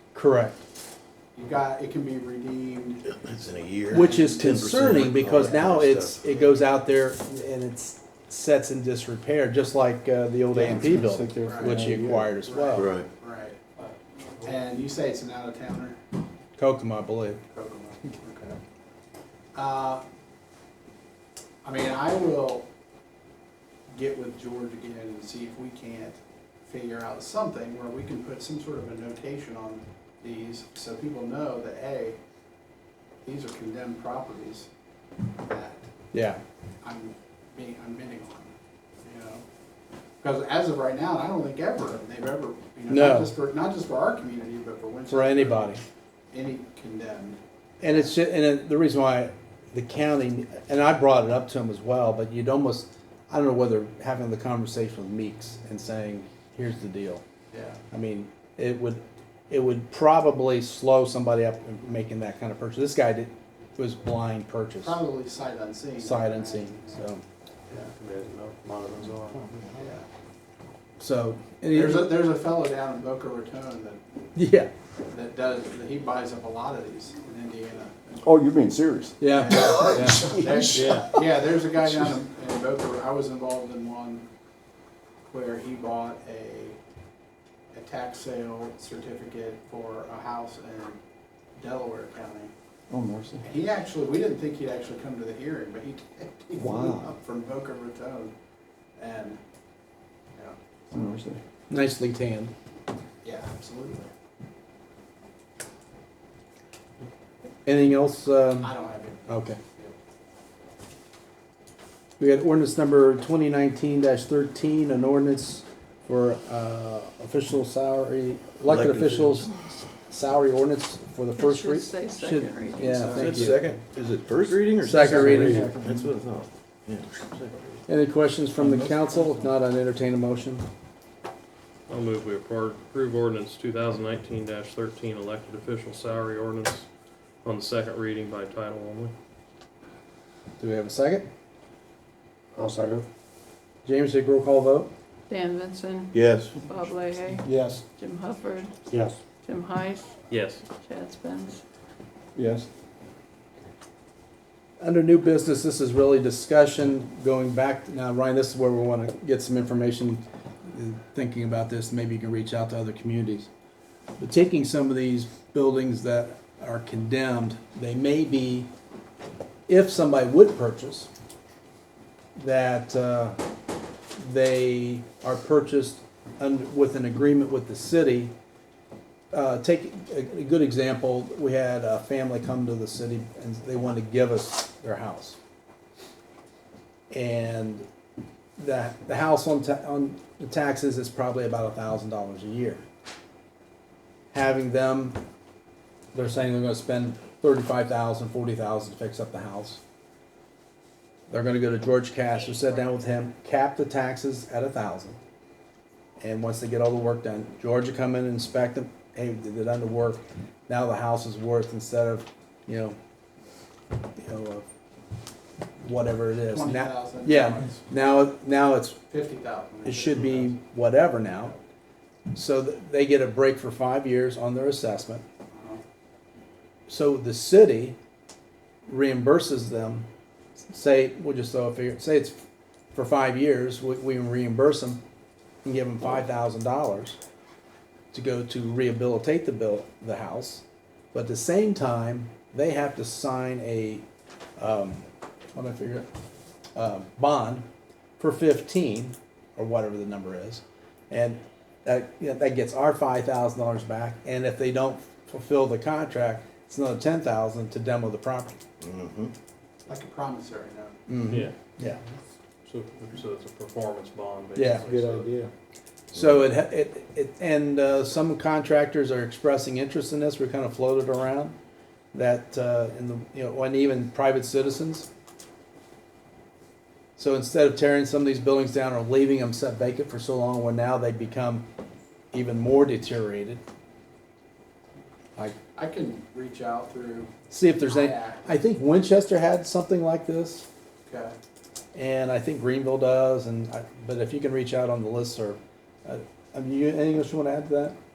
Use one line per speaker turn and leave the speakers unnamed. Correct.
You got, it can be redeemed.
It's in a year.
Which is
10%, all
concerning because
that kind
now
of
it's,
stuff.
it goes out there and it's sets in disrepair, just like uh, the old
Yeah,
A
it's
and
been
P building,
sit there
for
which
another
you
year.
acquired as well.
Right.
Right. And you say it's an out of towner?
Kokomo, I believe.
Kokomo, okay. Uh, I mean, I will get with George again and see if we can't figure out something where we can put some sort of a notation on these so people know that, hey, these are condemned properties that
Yeah.
I'm being, I'm bidding on, you know? Because as of right now, I don't think ever, they've ever, you know,
No.
not just for, not just for our community, but for Winchester.
For anybody.
Any condemned.
And it's, ju- and it- the reason why the county, and I brought it up to him as well, but you'd almost, I don't know whether having the conversation with Meeks and saying, here's the deal.
Yeah.
I mean, it would, it would probably slow somebody up in making that kind of purchase. This guy did, was blind purchase,
Probably sight unseen.
sight unseen, so,
Yeah, yeah.
so. and
There's a,
he-
there's a fellow down in Boca Raton that,
Yeah,
that does, that he buys up a lot of these in Indiana.
Oh, you're being serious.
yeah, yeah,
There's- Yeah, there's a guy down in- in Boca, Ra- I was involved in one where he bought a, a tax sale certificate for a house in Delaware County.
Oh, mercy.
And He actually, we didn't think he'd actually come to the hearing, but he, did. he flew
Wow.
up from Boca Raton. And, yeah,
Oh, mercy.
nicely tanned.
yeah, absolutely.
Anything else, um?
I don't have any.
Okay. We got ordinance number twenty nineteen thirteen, an ordinance for, uh, official salary, elected
Elected
officials salary ordinance for the first
should
read.
say second reading.
Yeah, thank
Is
you.
that second, is it first reading or?
Second reading.
That's what I thought. Yeah. second reading.
Any questions from the council? If not, I'd entertain a motion.
I'll move we appro- approve ordinance two thousand nineteen thirteen, elected official salary ordinance on the second reading by title only.
Do we have a second?
I'll second.
James, take roll call vote?
Dan Vincent,
Yes.
Bob Leahy,
Yes.
Jim Hufford,
Yes.
Jim Heiss,
Yes.
Chad Spence.
Yes.
Under new business, this is really discussion going back, now Ryan, this is where we want to get some information, uh, thinking about this, maybe you can reach out to other communities. But taking some of these buildings that are condemned, they may be, if somebody would purchase, that uh, they are purchased un- with an agreement with the city. Uh, Take, a a good example, we had a family come to the city and they wanted to give us their house. And the, the house on, ta- on the taxes is probably about a thousand dollars a year. Having them, they're saying they're gonna spend thirty-five thousand, forty thousand to fix up the house. They're gonna go to George Castor, sit down with him, cap the taxes at a thousand. And once they get all the work done, George will come in and inspect them, hey, they did done the work, now the house is worth instead of, you know, you know, uh, whatever it is. Now-
Twenty thousand.
Yeah, now, now it's,
Fifty thousand.
it should be whatever now. So th- they get a break for five years on their assessment. So the city reimburses them, say, we'll just throw a figure, say it's for five years, we, we reimburse them and give them five thousand dollars to go to rehabilitate the bill, the house. But at the same time, they have to sign a, um, what did I figure, it? um, bond for fifteen, or whatever the number is. And that, you know, that gets our five thousand dollars back, and if they don't fulfill the contract, it's another ten thousand to demo the property.
Mm-hmm.
Like a promissory note.
Yeah,
Mm-hmm. Yeah.
so, so it's a performance bond,
Yeah.
basically. so-
So it, ha- it, it, and, uh, some contractors are expressing interest in this, we're kind of floated around, that, uh, in the, you know, and even private citizens. So instead of tearing some of these buildings down or leaving them set vacant for so long, well, now they become even more deteriorated. Like,
I can reach out through,
see if there's any,
Yeah.
I think Winchester had something like this,
okay,
and I think Greenville does, and, I- but if you can reach out on the list, or, uh, have you, anything else you wanna add to that?